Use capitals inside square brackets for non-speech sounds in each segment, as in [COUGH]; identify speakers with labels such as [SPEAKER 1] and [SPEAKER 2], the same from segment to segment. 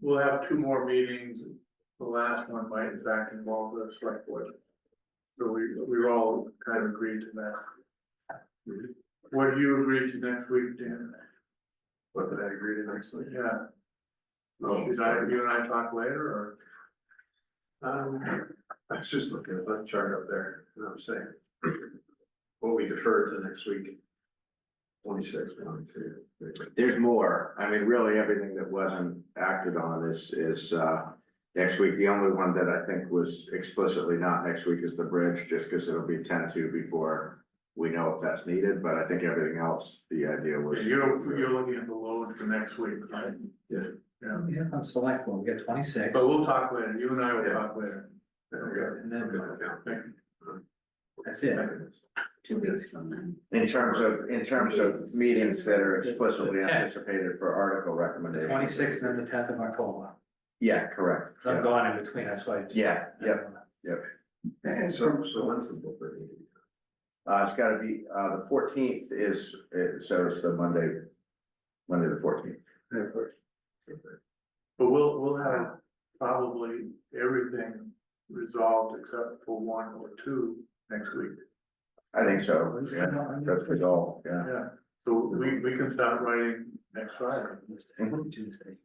[SPEAKER 1] we'll have two more meetings. The last one might in fact involve the select board. So we, we all kind of agreed to that. What do you agree to next week, Dan?
[SPEAKER 2] What did I agree to next week?
[SPEAKER 1] Yeah,
[SPEAKER 2] No,
[SPEAKER 1] is I, you and I talk later
[SPEAKER 2] um, I was just looking at that chart up there, and I'm saying. What we defer to next week. Twenty-six, one, two. three.
[SPEAKER 3] There's more. I mean, really, everything that wasn't acted on is, is, uh, next week. The only one that I think was explicitly not next week is the bridge, just because it'll be ten to before we know if that's needed, but I think everything else, the idea
[SPEAKER 1] or?
[SPEAKER 3] was.
[SPEAKER 1] You're, you're looking at the load for next week, right?
[SPEAKER 2] Yeah.
[SPEAKER 1] Yeah,
[SPEAKER 4] Yeah, on select one, we got twenty-six.
[SPEAKER 1] but we'll talk later, you and I will
[SPEAKER 2] Yeah.
[SPEAKER 1] talk later.
[SPEAKER 2] Okay.
[SPEAKER 4] And then
[SPEAKER 2] Okay.
[SPEAKER 1] Thank
[SPEAKER 4] that's it.
[SPEAKER 5] two weeks from then.
[SPEAKER 3] In terms of, in terms of meetings that are explicitly anticipated for article
[SPEAKER 4] The
[SPEAKER 3] recommendations.
[SPEAKER 4] twenty-sixth and then the tenth of October.
[SPEAKER 3] Yeah, correct.
[SPEAKER 4] 'Cause I'm gone in between, that's why. I just-
[SPEAKER 3] Yeah, yeah.
[SPEAKER 2] And so, so when's the book reading?
[SPEAKER 3] Uh, it's gotta be, uh, the fourteenth is, uh, so it's the Monday, Monday the fourteenth.
[SPEAKER 1] But we'll, we'll have probably everything resolved except for one or two next week.
[SPEAKER 3] I think so, yeah, that's the goal, yeah.
[SPEAKER 1] Yeah, so we, we can start writing next Friday.
[SPEAKER 3] Mhm.
[SPEAKER 4] Tuesday.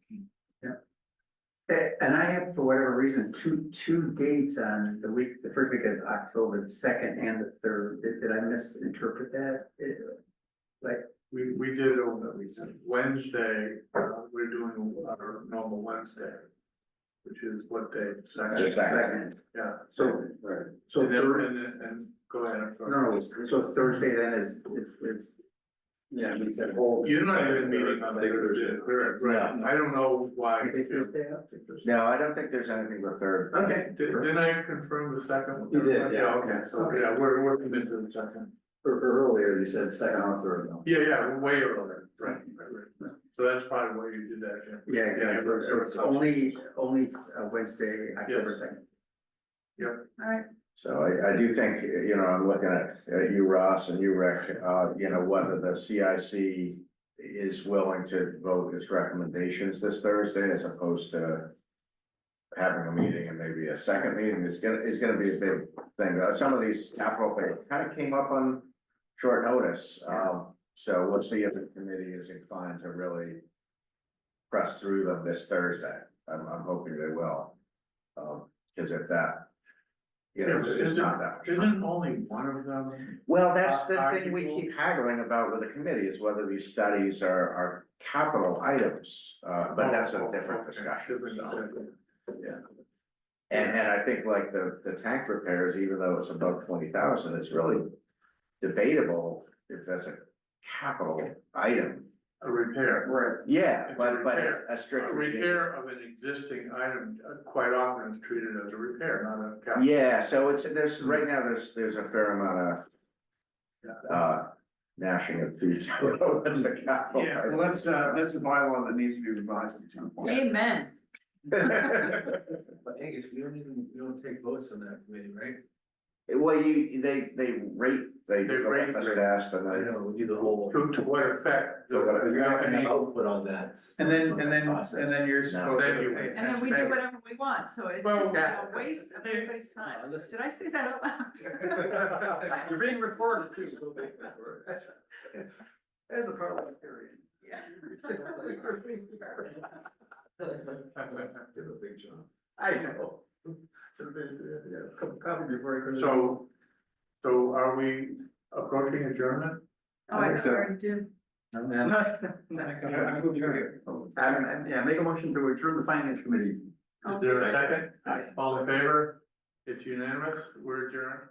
[SPEAKER 6] A- Eh, And I have, for whatever reason, two, two dates on the week, the first week of October, the second and the third. Did, did I misinterpret that? Eh,
[SPEAKER 1] We, we did it over the weekend. Wednesday, uh, we're doing our normal Wednesday, which is what day?
[SPEAKER 3] The second.
[SPEAKER 1] Yeah.
[SPEAKER 6] So, so,
[SPEAKER 1] And then,
[SPEAKER 6] Thur-
[SPEAKER 1] and, then- and go ahead, I'm sorry.
[SPEAKER 6] no, so Thursday then is, is, is.
[SPEAKER 2] Yeah, we said whole.
[SPEAKER 1] You're not even meeting on Thursday, correct, right? I don't know why.
[SPEAKER 6] is it
[SPEAKER 1] Did,
[SPEAKER 6] Thursday up?
[SPEAKER 3] No, I don't think there's anything the third.
[SPEAKER 6] Okay.
[SPEAKER 1] didn't I confirm the second?
[SPEAKER 2] You did, yeah,
[SPEAKER 1] okay. So, yeah, we're, we're committed to the second.
[SPEAKER 2] Earlier, you said second or third, no?
[SPEAKER 1] Yeah, yeah, way earlier, right, right, right. So that's probably why you did that, Jim.
[SPEAKER 6] Yeah, exactly.
[SPEAKER 1] Yeah, it was-
[SPEAKER 6] It's only, only uh, Wednesday, October second.
[SPEAKER 5] All right,
[SPEAKER 3] So I, I do think, you know, I'm looking at, at you, Ross, and you, Rick, uh, you know, whether the CIC is willing to vote its recommendations this Thursday as opposed to having a meeting and maybe a second meeting is gonna, is gonna be a big thing. Uh, Some of these capital things kind of came up on short notice. Um, so we'll see if the committee is inclined to really press through them this Thursday. I'm, I'm hoping they will. Um, cause if that, you know, it's it's not that. much time.
[SPEAKER 1] Isn't only one of them,
[SPEAKER 3] Well, that's the
[SPEAKER 1] Are- are
[SPEAKER 3] thing we
[SPEAKER 1] people-
[SPEAKER 3] keep haggling about with the committee is whether these studies are, are capital items, uh, but that's a
[SPEAKER 1] Oh,
[SPEAKER 3] different
[SPEAKER 1] okay.
[SPEAKER 3] discussion.
[SPEAKER 1] Different
[SPEAKER 3] so.
[SPEAKER 1] discussion.
[SPEAKER 3] Yeah. And, and I think like the, the tank repairs, even though it's above twenty thousand, it's really debatable if that's a capital item.
[SPEAKER 1] a repair,
[SPEAKER 6] Right.
[SPEAKER 3] Yeah,
[SPEAKER 1] It's a
[SPEAKER 3] but, but
[SPEAKER 1] repair.
[SPEAKER 3] a
[SPEAKER 1] a
[SPEAKER 3] strict.
[SPEAKER 1] repair of an existing item uh, quite often is treated as a repair, not a capital.
[SPEAKER 3] Yeah, so it's, there's, right now, there's, there's a fair amount of, uh, gnashing of teeth. [LAUGHS] That's a capital item.
[SPEAKER 2] that's, uh, that's a bylaw that needs to be revised at some
[SPEAKER 5] amen.
[SPEAKER 4] But Angus, we don't even, we don't take votes on that committee, right?
[SPEAKER 3] Well, you, they, they rate, they.
[SPEAKER 1] They rate-
[SPEAKER 3] Just asked, and
[SPEAKER 4] I
[SPEAKER 3] I,
[SPEAKER 4] know, we do the whole.
[SPEAKER 1] To, to what effect?
[SPEAKER 3] So what-
[SPEAKER 1] the
[SPEAKER 4] We're not gonna
[SPEAKER 1] company-
[SPEAKER 4] have output on that.
[SPEAKER 2] And then, and then,
[SPEAKER 4] Process.
[SPEAKER 2] and then you're
[SPEAKER 3] No.
[SPEAKER 2] supposed
[SPEAKER 1] Then you-
[SPEAKER 2] to.
[SPEAKER 5] And then we do whatever we want, so it's
[SPEAKER 1] Well,
[SPEAKER 5] just a
[SPEAKER 6] that-
[SPEAKER 5] waste of everybody's time.
[SPEAKER 4] No, listen.
[SPEAKER 5] Did I say that out loud? [LAUGHS]
[SPEAKER 6] [LAUGHS] You're being recorded too. so make that work. That's that's the part of the period.
[SPEAKER 5] Yeah.
[SPEAKER 6] [LAUGHS]
[SPEAKER 2] Give a big job. I know. Come before.
[SPEAKER 1] So, so are we approaching adjournment?
[SPEAKER 5] Oh, I already did.
[SPEAKER 4] No,
[SPEAKER 6] [LAUGHS]
[SPEAKER 4] man.
[SPEAKER 2] I'm moving here.
[SPEAKER 6] I'm- I'm- yeah, make a motion to adjourn the finance committee.
[SPEAKER 1] Is there a second? All in favor? It's unanimous, we're adjourned.